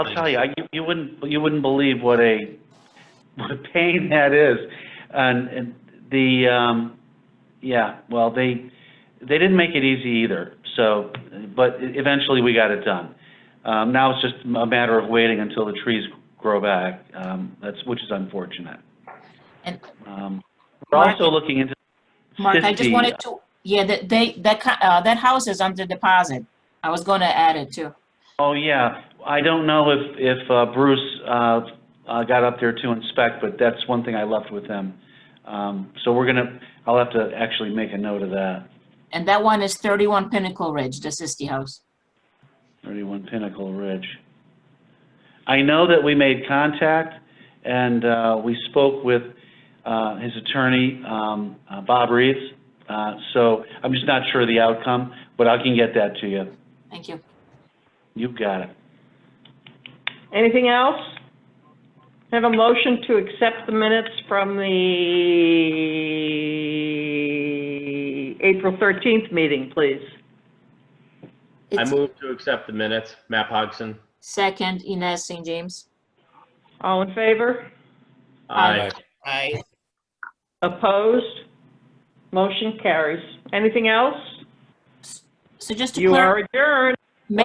I'll tell you, I- you, you wouldn't, you wouldn't believe what a, what a pain that is. And, and the, um, yeah, well, they, they didn't make it easy either, so, but eventually we got it done. Um, now it's just a matter of waiting until the trees grow back, um, that's, which is unfortunate. And- Um, We're also looking into Mark, I just Fifty. wanted to, yeah, that they, that, co- uh, that house is under deposit. I was gonna add it too. Oh, yeah. I don't know if, if uh, Bruce uh, uh, got up there to inspect, but that's one thing I left with him. Um, So we're gonna, I'll have to actually make a note of that, And that one is thirty-one Pinnacle Ridge, the Sisti House. 31 Pinnacle Ridge. I know that we made contact, and uh, we spoke with uh, his attorney, um, uh, Bob Reeves. Uh, So I'm just not sure of the outcome, but I can get that to you. Thank you. You've got it. Anything else? Have a motion to accept the minutes from the April 13th meeting, please. I It's move to accept the minutes. Matt Hogson. second, Inez St. James. All in favor? Aye. Aye. Opposed? Motion carries. Anything else? So just to You clarify. are adjourned.